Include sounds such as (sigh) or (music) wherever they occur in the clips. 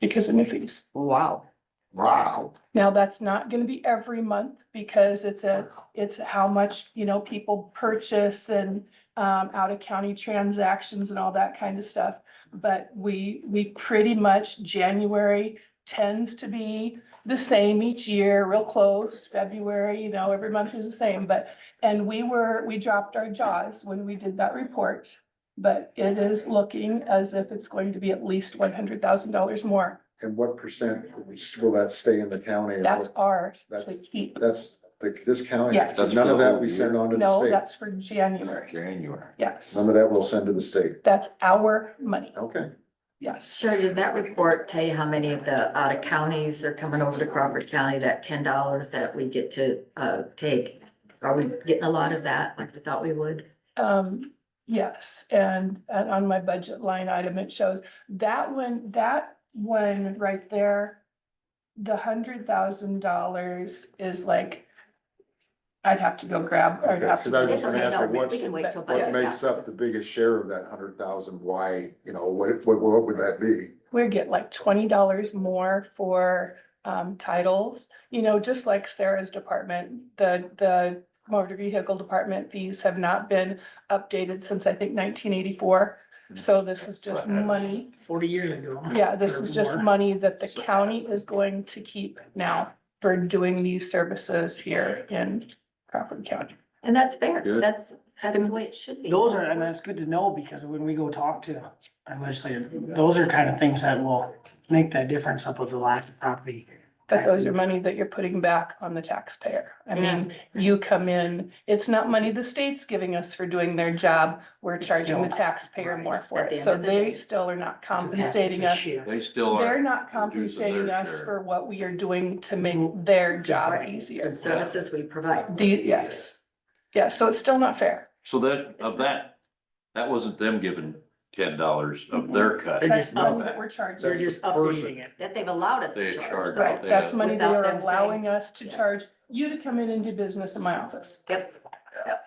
because of new fees. Wow. Wow. Now, that's not gonna be every month because it's a, it's how much, you know, people purchase and um, out of county transactions and all that kind of stuff. But we, we pretty much, January tends to be the same each year, real close, February, you know, every month is the same, but, and we were, we dropped our jaws when we did that report. But it is looking as if it's going to be at least one hundred thousand dollars more. And what percent will that stay in the county? And That's what- ours to That's- keep. That's, the- this county, Yes. That's none the of that whole we year? send on to the No, state. that's for January. January. Yes, None of that we'll send to the state. that's our money. Okay. Yes. Sure, did that report tell you how many of the out of counties are coming over to Crawford County, that ten dollars that we get to, uh, take? Are we getting a lot of that like we thought we would? Um, yes, and, and on my budget line item, it shows that one, that one right there. The hundred thousand dollars is like, I'd have to go grab, I'd Okay, have to. 'cause I was go just gonna grab ask you, it. what- We can wait till But- Yes. What makes up the biggest share of that hundred thousand? Why, you know, what, what, what would that be? we get like twenty dollars more for um titles, you know, just like Sarah's department, the the motor vehicle department fees have not been updated since I think nineteen eighty-four. So this is just money. forty years ago. Yeah, this is just Or more. money that the county is going to keep now for doing these services here in Crawford County. And that's fair, Good. that's, that's the way it should be. Those are, and that's good to know, because when we go talk to our legislative, those are kind of things that will make that difference up with the lack of property. But those are money that you're putting back on the taxpayer. I mean, Yeah. you come in, it's not money the state's giving us for doing their job. We're It's charging the still- taxpayer more Right, for at it. the end So of the they day. still are not It's a- compensating it's a us. share. They still They're are. not reducing their compensating us share. for what we are doing to make their job Mm-hmm. Right. The easier. services we provide. The, yes. Yeah, so it's still not fair. So that, of that, that wasn't them giving ten dollars of their cut. They That's just money know that that. we're charging. You're That's the just updating person. it. That they've allowed us They to charge. charge. Right, They that's have- money they Without are them saying- allowing us to Yeah. charge you to come in and do business in my office. Yep. Yep.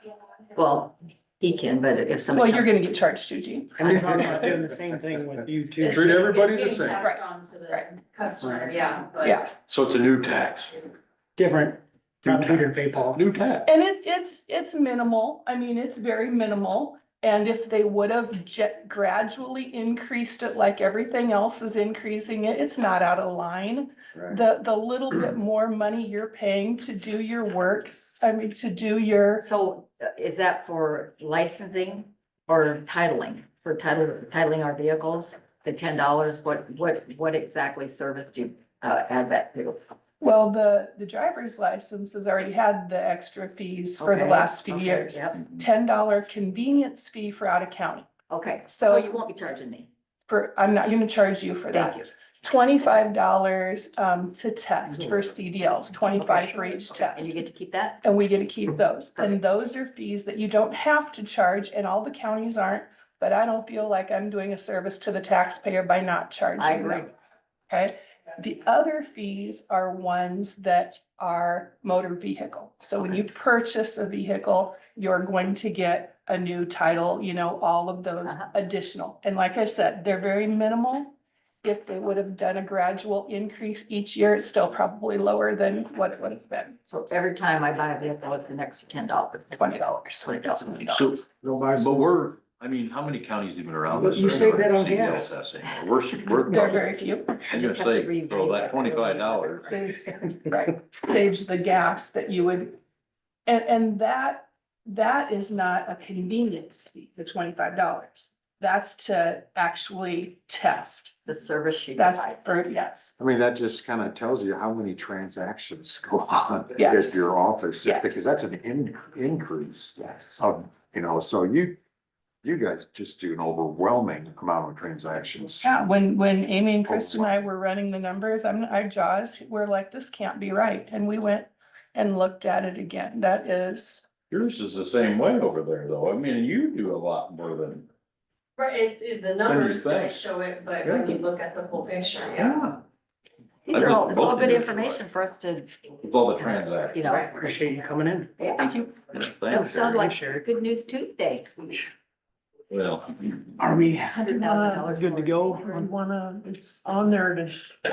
Well, he can, but if Well, somebody. you're gonna get charged too, Gene. And they're talking about doing the same thing with you too. Treat everybody the It's same. getting Right. passed on to the Right. customer, yeah, but. Yeah, So it's a new tax, Different, not Peter PayPal. new tax. and it, it's, it's minimal. I mean, it's very minimal. And if they would have je- gradually increased it like everything else is increasing it, it's not out of line. Right. The, the little (clears throat) bit more money you're paying to do your work, I mean, to do your, So uh, is that for licensing or titling, for title, titling our vehicles? The ten dollars, what, what, what exactly service do you uh, add that to? well, the, the driver's license has already had the extra fees for the Okay, last few okay, years. Yep, Ten dollar convenience fee for out of county. okay, so you So won't be charging me, for, I'm not gonna charge you for thank that. you. Twenty-five dollars um to test for CDLs, twenty-five for each And test. you get to keep that? And we get to keep those. And Perfect. those are fees that you don't have to charge and all the counties aren't. But I don't feel like I'm doing a service to the taxpayer by not I charging agree, them. Okay, the other fees are ones that are motor vehicle. So when you purchase a vehicle, you're going to get a new title, you know, all of those Uh-huh. additional. And like I said, they're very minimal. If they would have done a gradual increase each year, it's still probably lower than what it would have been, so every time I buy a vehicle, it's an extra ten dollars. twenty dollars. Twenty dollars. So, Don't buy but we're, I mean, how many counties even around But us? you are saved that on doing gas. CDLs anymore? We're, They're we're, very few. I'm gonna say, so that twenty-five dollars, There's, (laughs) right, saves the gas that you would, and, and that, that is not a convenience fee, the twenty-five dollars. That's to actually test. The service she That's provides. for, yes, I mean, that just kind of tells you how many transactions go on (laughs) Yes. at your office, Yes. because that's an in, increase yes. of, you know, so you, you guys just do an overwhelming amount of transactions. Yeah, when, when Amy and Chris and I were running the numbers, I'm, our jaws were like, this can't be right. And we went and looked at it again. That is, yours is the same way over there, though. I mean, you do a lot more than. Right, it, it, the numbers think. don't show it, but when you look at the whole picture, yeah. These are all, it's all Both of good you. information for us to, With all the transactions. you know. Appreciate you coming in. Thank you. Thanks, That sounded Eric. like Sherry. Good News Tuesday. Well. Are we Hundred thousand dollars. good to go on Wanna, it's on there to